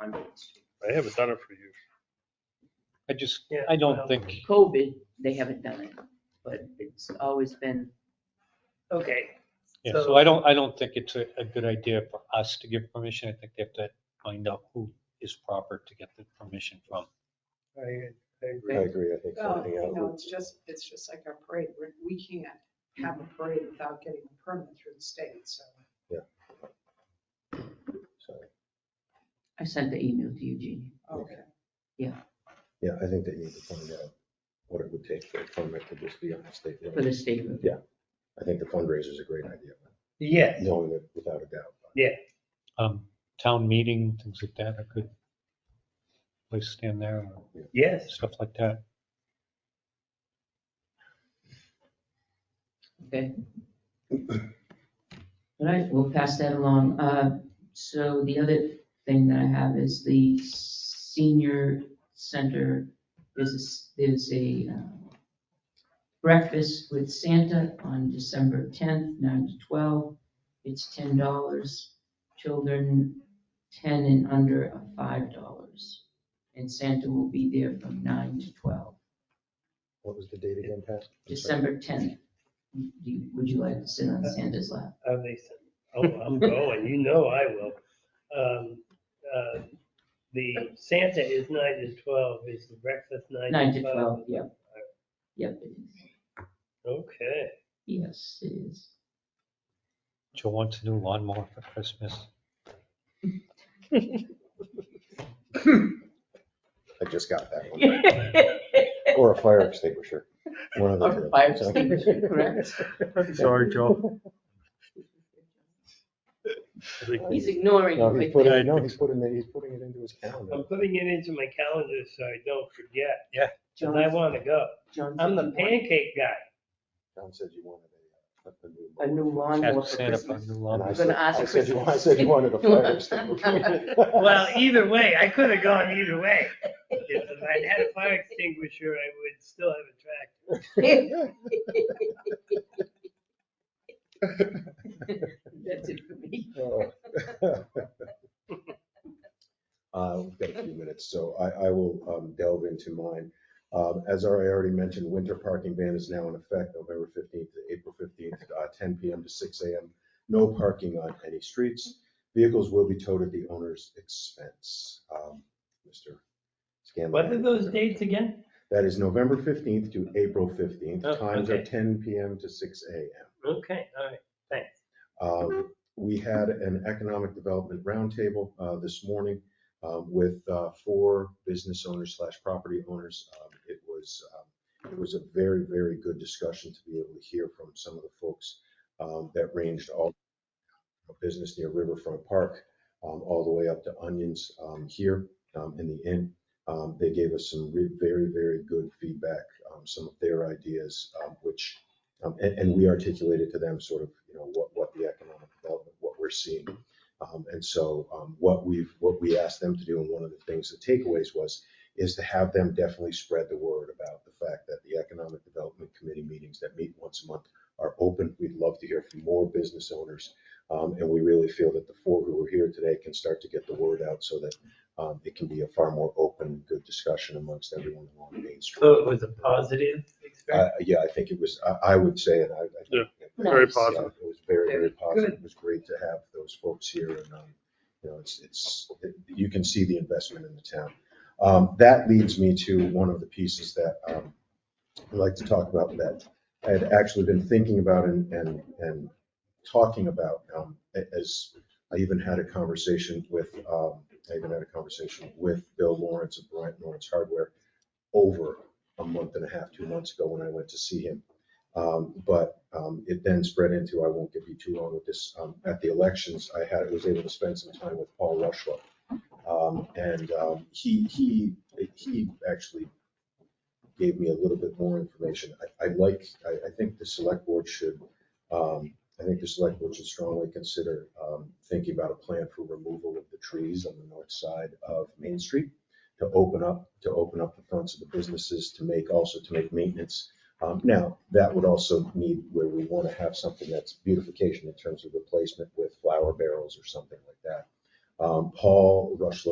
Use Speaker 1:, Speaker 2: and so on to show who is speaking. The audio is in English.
Speaker 1: I'm against it.
Speaker 2: I haven't done it for years.
Speaker 3: I just,
Speaker 4: Yeah,
Speaker 3: I don't
Speaker 4: well.
Speaker 3: think,
Speaker 5: COVID, they haven't done it, but it's always been,
Speaker 4: Okay,
Speaker 3: yeah, so
Speaker 4: So-
Speaker 3: I don't, I don't think it's a, a good idea for us to give permission. I think they have to find out who is proper to get the permission from.
Speaker 4: I, I agree.
Speaker 6: I agree, I think
Speaker 7: Well,
Speaker 6: finding
Speaker 7: oh, you
Speaker 6: out
Speaker 7: know,
Speaker 6: what
Speaker 7: it's just, it's just like our parade. We're- We can't have a parade without getting a permit through the state, so.
Speaker 6: so,
Speaker 5: I sent the email to Eugene.
Speaker 7: Okay.
Speaker 6: yeah, I think that you need to find out what it would take for a permit to just be on the state.
Speaker 5: For
Speaker 6: road.
Speaker 5: the state road.
Speaker 6: I think the fundraiser is a great idea,
Speaker 4: Yes,
Speaker 6: knowing it without a doubt.
Speaker 3: Um, town meeting, things like that, I could place stand there, or
Speaker 4: yes.
Speaker 3: stuff like that.
Speaker 5: Okay. All right, we'll pass that along. Uh, So the other thing that I have is the senior center, there's, a s- there's a uh, breakfast with Santa on December 10th, 9 to 12. It's $10. Children 10 and under are $5. And Santa will be there from 9 to 12,
Speaker 6: What was the date again, Pat? I'm sorry.
Speaker 5: December 10th. Do you- Would you like to sit on Santa's lap?
Speaker 4: Uh, they said, oh, I'm going, you know I will. Um, uh, The Santa is nine to twelve, is the breakfast
Speaker 5: Nine to twelve, yep. Yep, it is.
Speaker 4: Okay,
Speaker 5: Yes, it is.
Speaker 3: Joe wants a new lawnmower for Christmas.
Speaker 6: I just got that one. Or a fire extinguisher. One of the
Speaker 5: Or
Speaker 6: two.
Speaker 5: fire
Speaker 6: So-
Speaker 5: extinguisher, correct.
Speaker 2: Sorry, Joe. I think
Speaker 5: He's ignoring
Speaker 6: No,
Speaker 5: you.
Speaker 6: he's
Speaker 5: I think.
Speaker 6: putting, no, he's putting it, he's putting it into his calendar.
Speaker 4: I'm putting it into my calendar so I don't forget, and I
Speaker 5: John's-
Speaker 4: want to go.
Speaker 5: John's
Speaker 4: I'm the
Speaker 5: ignoring-
Speaker 4: pancake guy.
Speaker 6: John said you wanted a, a new.
Speaker 5: A new lawnmower
Speaker 3: Ask
Speaker 5: for
Speaker 3: Santa for a
Speaker 5: Christmas.
Speaker 3: new
Speaker 6: And
Speaker 3: lawnmower.
Speaker 6: I
Speaker 5: I'm
Speaker 6: said,
Speaker 5: gonna ask
Speaker 6: I said you,
Speaker 5: for-
Speaker 6: I said you wanted a fire extinguisher.
Speaker 4: Well, either way, I could have gone either way. If I'd had a fire extinguisher, I would still have a tractor.
Speaker 5: That's it for me.
Speaker 6: Oh. Uh, We've got a few minutes, so I, I will um, delve into mine. Um, As I already mentioned, winter parking ban is now in effect November 15th to April 15th, uh, 10 PM to 6 AM. No parking on any streets. Vehicles will be towed at the owner's expense. Um, Mr. Scanlon.
Speaker 4: What are those dates again?
Speaker 6: That is November 15th to April 15th.
Speaker 4: Oh,
Speaker 6: Times are
Speaker 4: okay.
Speaker 6: 10 PM to 6 AM.
Speaker 4: Okay, all right, thanks.
Speaker 6: Um, We had an economic development roundtable uh, this morning um, with uh, four business owners slash property owners. Um, It was, um, it was a very, very good discussion to be able to hear from some of the folks um, that ranged all from business near Riverfront Park, um, all the way up to Onions um, here um, in the inn. Um, They gave us some re- very, very good feedback, um, some of their ideas, um, which um, And, and we articulated to them sort of, you know, what, what the economic development, what we're seeing. Um, And so um, what we've, what we asked them to do, and one of the things, the takeaways was, is to have them definitely spread the word about the fact that the Economic Development Committee meetings that meet once a month are open. We'd love to hear from more business owners. Um, And we really feel that the four who are here today can start to get the word out so that um, it can be a far more open, good discussion amongst everyone along Main Street.
Speaker 4: So it was a positive experience?
Speaker 6: Uh, Yeah, I think it was, I, I would say, and I. I think-
Speaker 2: Very
Speaker 5: Nice.
Speaker 2: positive.
Speaker 6: It was very, very
Speaker 7: Very
Speaker 6: positive. It was great to have those folks here and, um, you know, it's, it's, you can see the investment in the town. Um, That leads me to one of the pieces that um, I'd like to talk about that I had actually been thinking about and, and, and talking about um, a- as I even had a conversation with, um, I even had a conversation with Bill Lawrence of Bryant Lawrence Hardware over a month and a half, two months ago when I went to see him. Um, But um, it then spread into, I won't give you too long with this, um, at the elections, I had, was able to spend some time with Paul Rushlow. Um, And um, he, he, he actually gave me a little bit more information. I, I like, I, I think the select board should, um, I think the select board should strongly consider um, thinking about a plan for removal of the trees on the north side of Main Street to open up, to open up the fronts of the businesses, to make, also to make maintenance. Um, Now, that would also need where we want to have something that's beautification in terms of replacement with flower barrels or something like that. Um, Paul Rushlow